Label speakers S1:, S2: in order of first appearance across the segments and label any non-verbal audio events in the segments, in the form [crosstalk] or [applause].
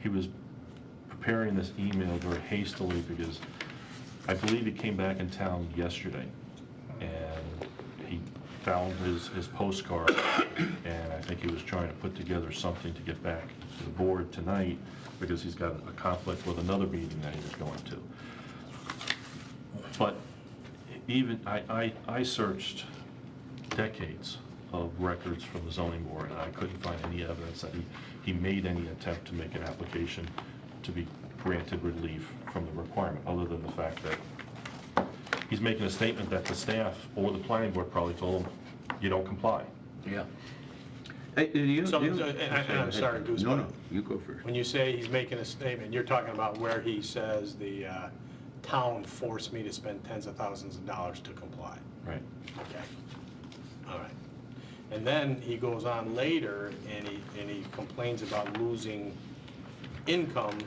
S1: he was preparing this email very hastily because I believe he came back in town yesterday, and he found his, his postcard, and I think he was trying to put together something to get back to the board tonight, because he's got a conflict with another meeting that he was going to. But even, I, I, I searched decades of records from the zoning board, and I couldn't find any evidence that he, he made any attempt to make an application to be granted relief from the requirement, other than the fact that he's making a statement that the staff or the planning board probably told him, you don't comply.
S2: Yeah. Hey, you-
S3: Some-
S2: you-
S3: uh, and- and I'm sorry, Goose,
S2: No,
S3: but-
S2: no, you go first.
S3: When you say he's making a statement, you're talking about where he says the uh, town forced me to spend tens of thousands of dollars to comply.
S1: Right.
S3: Okay. All right. And then he goes on later and he, and he complains about losing income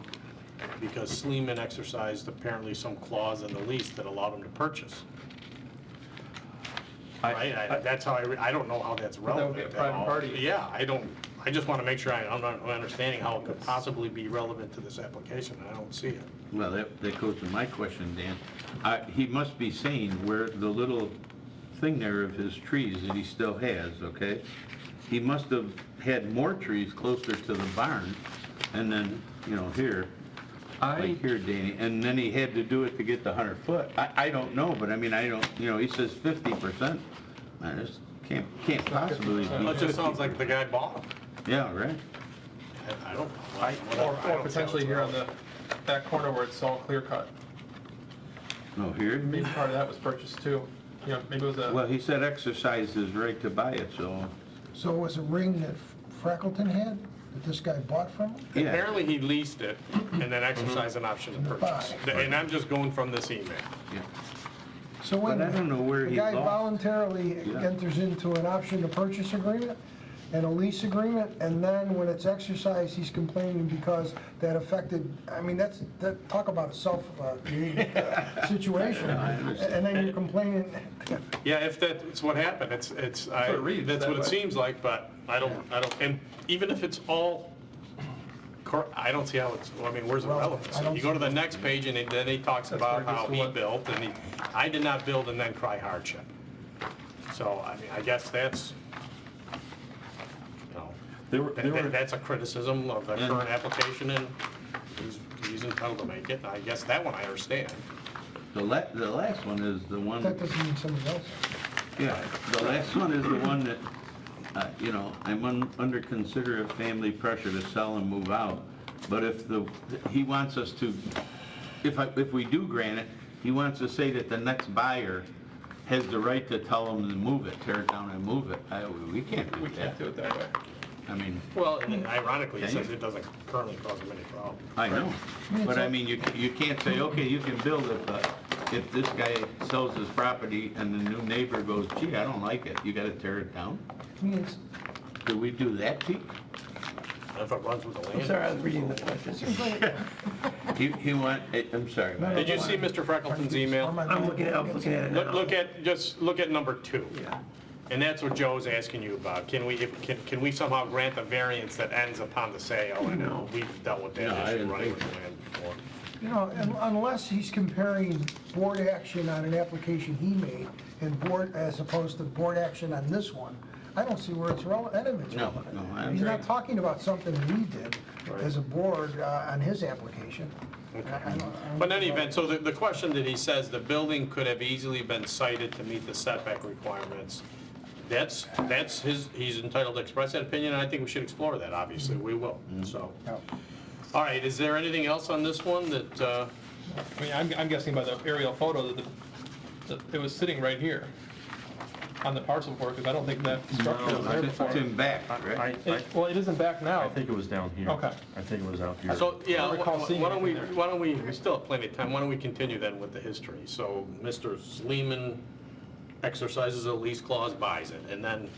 S3: because Sleeman exercised apparently some clause in the lease that allowed him to purchase.
S1: I-
S3: Right? I- That's how I, re- I don't know how that's
S4: that
S3: relevant.
S4: would be a
S3: at
S4: private
S3: all.
S4: party.
S3: Yeah, I don't, I just want to make sure I, I'm not understanding how it could possibly be relevant to this application, and I don't see it.
S2: Well, that, that goes to my question, Dan. I- He must be saying where the little thing there of his trees that he still has, okay? He must have had more trees closer to the barn and then, you know, here,
S1: I,
S2: like here, Danny, and then he had to do it to get the 100 foot. I, I don't know, but I mean, I don't, you know, he says 50%. I just can't, can't possibly be.
S3: It just sounds like the guy bought them.
S2: Yeah, right?
S3: I- I don't.
S4: Or, or potentially here on the, that corner where it's all clear cut.
S2: No, here?
S4: Maybe part of that was purchased too. You know, maybe it was
S2: Well,
S4: a,
S2: he said exercise his right to buy it, so,
S5: So it was a ring that Freckleton had, that this guy bought from him?
S2: yeah.
S3: Apparently, he leased it and then exercised an option to purchase.
S5: Buy.
S3: And I'm just going from this email.
S2: yeah.
S5: So when
S2: But I don't know where he
S5: The guy
S2: lost.
S5: voluntarily
S2: Yeah.
S5: enters into an option to purchase agreement and a lease agreement, and then when it's exercised, he's complaining because that affected, I mean, that's, that, talk about a self, uh,
S2: [laughs]
S5: created, uh, situation. And then you're complaining,
S3: Yeah, if that's what happened, it's, it's, I,
S4: what it reads
S3: that's
S4: that
S3: what it
S4: way.
S3: seems like, but I don't, I don't, and even if it's all, cor- I don't see how it's, well, I mean, where's the
S5: Well, I
S3: relevance?
S5: don't
S3: You go to
S5: see-
S3: the next page and then he talks
S4: That's
S3: about
S4: where
S3: how
S4: it gets to
S3: he
S4: what-
S3: built and he, I did not build and then cry hardship. So, I mean, I guess that's, you know,
S1: there were,
S3: that-
S1: there
S3: that-
S1: were,
S3: that's a criticism of the
S2: Yeah.
S3: current application and he's, he's entitled to make it. I guess that one I understand.
S2: The la, the last one is the one,
S5: that doesn't mean somebody else.
S2: yeah, the last one is the one that, uh, you know, I'm un- under considerate family pressure to sell and move out. But if the, he wants us to, if I, if we do grant it, he wants to say that the next buyer has the right to tell him to move it, tear it down and move it. I, we can't do
S4: we can't do
S2: that.
S4: it that way.
S2: I mean,
S3: Well, and then ironically, it
S2: Yeah,
S3: says
S2: you-
S3: it doesn't currently cause them any problem.
S2: I know,
S5: Yeah,
S2: but I
S5: so-
S2: mean, you, you can't say, okay, you can build it, but if this guy sells his property and the new neighbor goes, gee, I don't like it, you gotta tear it down?
S5: I mean, it's,
S2: Do we do that, Pete?
S3: If it runs with the land.
S6: Sorry, I was reading the question.
S2: He, he want, eh, I'm sorry,
S5: No, no.
S2: Mike.
S3: Did you see Mr. Freckleton's email?
S6: I'm looking at, I was looking at it now.
S3: Look, look at, just look at number two.
S6: Yeah.
S3: And that's what Joe's asking you about. Can we, if- can, can we somehow grant a variance that ends upon the sale? And
S6: No.
S3: we've dealt with
S2: No, I
S3: that issue
S2: didn't
S3: running
S2: think
S3: with the land before.
S5: You know, un- unless he's comparing board action on an application he made and board, as opposed to board action on this one, I don't see where it's relevant, any of it's
S2: No,
S5: relevant.
S2: no, I
S5: He's not
S2: agree.
S5: talking about something we did as a board uh, on his application. I- I don't- I don't-
S3: But in any event, so the, the question that he says, the building could have easily been cited to meet the setback requirements. That's, that's his, he's entitled to express that opinion, and I think we should explore that, obviously, we will, so.
S5: No.
S3: All right, is there anything else on this one that, uh,
S4: I mean, I'm, I'm guessing by the aerial photo that the, that it was sitting right here on the parcel board, because I don't think that structure was there
S2: It's
S4: before.
S2: in back,
S1: I,
S2: right?
S1: I-
S4: It- Well, it isn't back
S1: I
S4: now.
S1: think it was down here.
S4: Okay.
S1: I think it was out here.
S3: so, yeah,
S4: I don't recall
S3: wh-
S4: seeing
S3: why don't we,
S4: anything there.
S3: why don't we, we still have plenty of time, why don't we continue then with the history? So, Mr. Sleeman exercises a lease clause, buys it, and then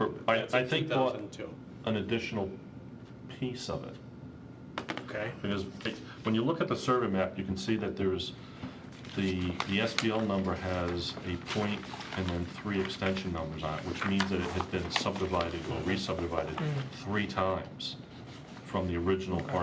S1: Or- I,
S3: that's
S1: I
S3: in
S1: think bought
S3: 2002,
S1: an additional piece of it.
S3: okay?
S1: Because it- when you look at the survey map, you can see that there's, the, the SBL number has a point and then three extension numbers on it, which means that it had been subdivided or re-subdivided three times from the original part.